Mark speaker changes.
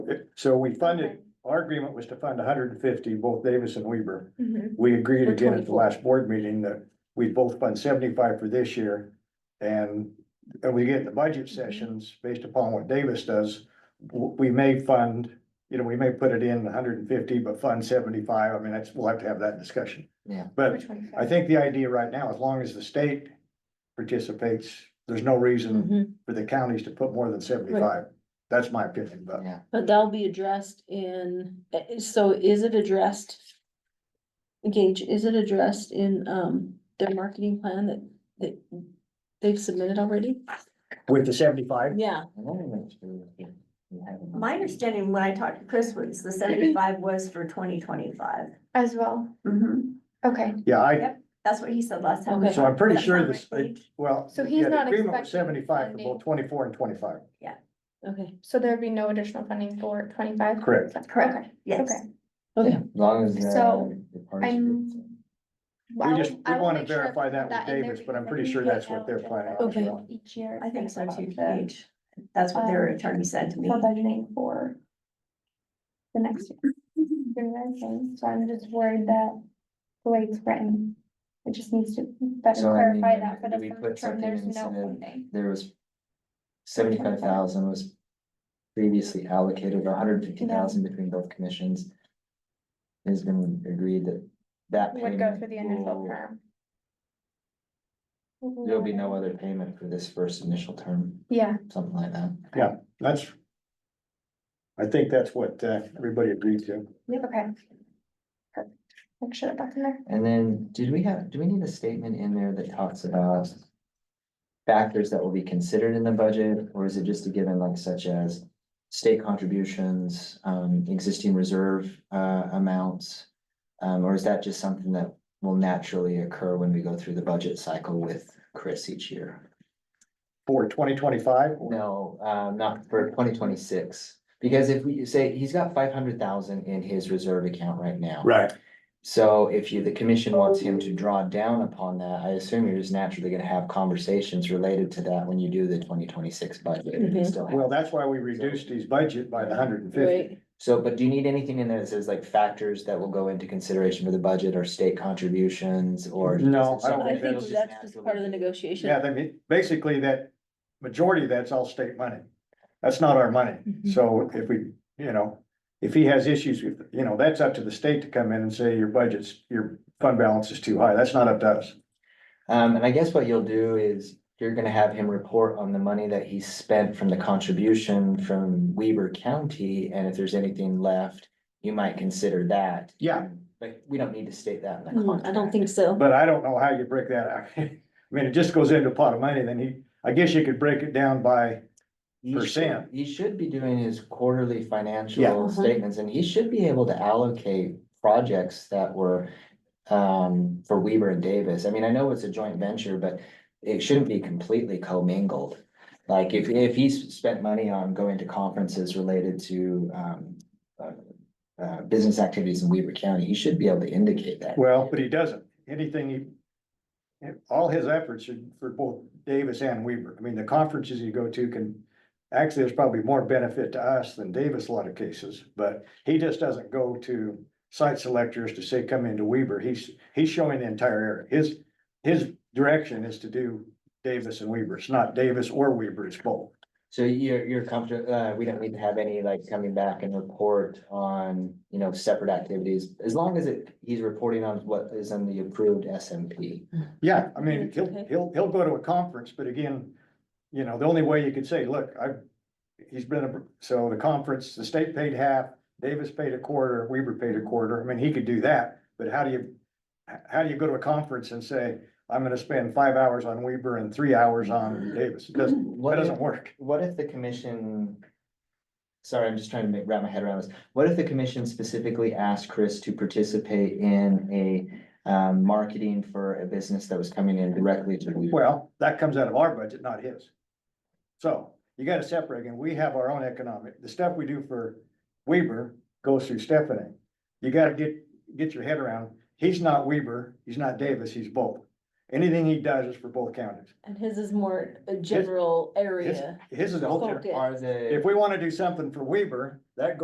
Speaker 1: So we funded, our agreement was to fund hundred and fifty, both Davis and Weaver.
Speaker 2: Mhm.
Speaker 1: We agreed
Speaker 2: For
Speaker 1: again at the
Speaker 2: 24.
Speaker 1: last board meeting that we both fund seventy-five for this year. And, and we get the budget sessions based upon what Davis does, w- we may fund, you know, we may put it in hundred and fifty, but fund seventy-five. I mean, that's, we'll have to have that discussion.
Speaker 3: Yeah.
Speaker 1: But
Speaker 2: For 25.
Speaker 1: I think the idea right now, as long as the state participates, there's no
Speaker 2: Mm-hmm.
Speaker 1: reason
Speaker 3: Mm-hmm.
Speaker 4: Mhm.
Speaker 1: for the counties to put more than seventy-five. That's my opinion, but
Speaker 3: Yeah,
Speaker 4: But that'll be addressed in, eh, so is it addressed? Gage, is it addressed in um their marketing plan that that they've submitted already?
Speaker 1: with the seventy-five,
Speaker 3: I
Speaker 4: Yeah,
Speaker 3: wanna make sure that we have enough.
Speaker 5: My understanding when I talked to Chris was the seventy-five was for twenty
Speaker 2: As well, okay,
Speaker 1: yeah, I,
Speaker 5: Yep. That's what he said last time. we
Speaker 4: Mm-hmm. Okay.
Speaker 1: so I'm pretty
Speaker 5: talked.
Speaker 1: sure
Speaker 5: That's
Speaker 1: this,
Speaker 5: on my page.
Speaker 1: well.
Speaker 2: So he's
Speaker 1: yeah, the
Speaker 2: not
Speaker 1: agreement was
Speaker 2: expecting
Speaker 1: Seventy-five for
Speaker 2: funding.
Speaker 1: both twenty-four and twenty-five,
Speaker 4: okay,
Speaker 2: so there'd be no additional funding for twenty-five?
Speaker 1: Correct.
Speaker 2: Okay.
Speaker 5: Yes.
Speaker 2: Okay.
Speaker 4: okay.
Speaker 3: As long as. uh,
Speaker 2: Oh, So,
Speaker 3: the parts are
Speaker 2: I'm-
Speaker 3: good.
Speaker 1: we
Speaker 2: Well,
Speaker 1: just,
Speaker 2: I
Speaker 1: we
Speaker 2: will
Speaker 1: wanna
Speaker 2: make sure I
Speaker 1: verify
Speaker 2: put
Speaker 1: that with
Speaker 2: in there
Speaker 1: Davis, but
Speaker 2: because
Speaker 1: I'm
Speaker 2: I
Speaker 1: pretty
Speaker 2: think
Speaker 1: sure
Speaker 2: they
Speaker 1: that's what they're
Speaker 2: eligible
Speaker 1: planning on
Speaker 2: for
Speaker 1: as
Speaker 4: Okay.
Speaker 1: well.
Speaker 2: Each year.
Speaker 5: I think so
Speaker 2: about
Speaker 5: too,
Speaker 2: the-
Speaker 5: Paige. Um, That's what their attorney said to me.
Speaker 2: For budgeting for the next year. You know what I'm saying? So I'm just worried that the way it's written, it just needs to better
Speaker 3: So, I mean,
Speaker 2: clarify that for
Speaker 3: do
Speaker 2: the
Speaker 3: we put
Speaker 2: first term,
Speaker 3: something
Speaker 2: there's
Speaker 3: in
Speaker 2: no
Speaker 3: instead of-
Speaker 2: funding.
Speaker 3: There was seventy-five thousand was previously allocated, hundred fifty thousand between both commissions. It's been agreed that that
Speaker 2: Would go
Speaker 3: payment
Speaker 2: through the initial
Speaker 3: will-
Speaker 2: term.
Speaker 3: There'll be no other payment for this first initial term,
Speaker 2: Yeah,
Speaker 3: something like that.
Speaker 1: That's, I think that's what, uh, everybody agreed to.
Speaker 2: okay. Perfect. Make sure that's in there.
Speaker 3: And then, did we have, do we need a statement in there that talks about factors that will be considered in the budget, or is it just a given like such as state contributions, um, existing reserve, uh, amounts? Um, or is that just something that will naturally occur when we go through the budget cycle with Chris each year?
Speaker 1: For twenty twenty-five,
Speaker 3: No, uh, not for twenty twenty-six, because if we say, he's got five hundred thousand in his reserve account right now.
Speaker 1: right,
Speaker 3: So if you, the commission wants him to draw down upon that, I assume you're just naturally gonna have conversations related to that when you do the twenty twenty-six budget. if you
Speaker 4: Mhm.
Speaker 3: still have-
Speaker 1: well, that's why we reduced his budget by the hundred and fifty.
Speaker 4: Right,
Speaker 3: So, but do you need anything in there that says like factors that will go into consideration for the budget or state contributions or? is it
Speaker 1: No, I don't
Speaker 3: something
Speaker 4: I
Speaker 1: think
Speaker 3: that'll
Speaker 4: think that's just
Speaker 3: naturally
Speaker 4: part of the
Speaker 3: be-
Speaker 4: negotiation.
Speaker 1: Yeah, I mean, basically that, majority of that's all state money. That's not our money.
Speaker 4: Mhm.
Speaker 1: So if we, you know, if he has issues, if, you know, that's up to the state to come in and say your budget's, your fund balance is too high. That's not up to us.
Speaker 3: Um, and I guess what you'll do is you're gonna have him report on the money that he spent from the contribution from Weber County, and if there's anything left, you might consider that.
Speaker 1: Yeah.
Speaker 3: But we don't need to state that in the
Speaker 4: Hmm,
Speaker 3: contract.
Speaker 4: I don't think so.
Speaker 1: But I don't know how you break that out. I mean, it just goes into a pot of money, then he, I guess you could break it down by,
Speaker 3: He should-
Speaker 1: percent.
Speaker 3: He should be doing his quarterly
Speaker 1: Yeah.
Speaker 3: financial
Speaker 4: Mhm.
Speaker 3: statements, and he should be able to allocate projects that were um, for Weaver and Davis. I mean, I know it's a joint venture, but it shouldn't be completely commingled. Like if, if he's spent money on going to conferences related to um, uh, uh, business activities in Weaver County, he should be able to indicate that.
Speaker 1: well, but he doesn't. Anything he. All his efforts are for both Davis and Weaver. I mean, the conferences you go to can. Actually, there's probably more benefit to us than Davis a lot of cases, but he just doesn't go to site selectors to say, come into Weaver. He's, he's showing the entire area. His. His direction is to do Davis and Weaver. It's not Davis or Weaver, it's both.
Speaker 3: So you're, you're comfortable, uh, we don't need to have any like coming back and report on, you know, separate activities, as long as it, he's reporting on what is in the approved SMP.
Speaker 1: Yeah, I mean,
Speaker 4: That's
Speaker 1: he'll,
Speaker 4: okay.
Speaker 1: he'll, he'll go to a conference, but again, you know, the only way you could say, look, I, he's been, a so the conference, the state paid half, Davis paid a quarter, Weaver paid a quarter. I mean, he could do that, but how do you, h- how do you go to a conference and say, I'm gonna spend five hours on Weaver and three hours on Davis? It doesn't, that
Speaker 3: What if,
Speaker 1: doesn't work.
Speaker 3: what if the commission? Sorry, I'm just trying to make, wrap my head around this. What if the commission specifically asked Chris to participate in a um, marketing for a business that was coming in directly to Weaver?
Speaker 1: Well, that comes out of our budget, not his. So you gotta separate, and we have our own economic, the stuff we do for Weaver goes through Stephanie. You gotta get, get your head around, he's not Weaver, he's not Davis, he's both. Anything he does is for both counties.
Speaker 4: And his is more a general area.
Speaker 1: His is the whole,
Speaker 4: focus.
Speaker 3: Are the.
Speaker 1: if we wanna do something for Weaver, that goes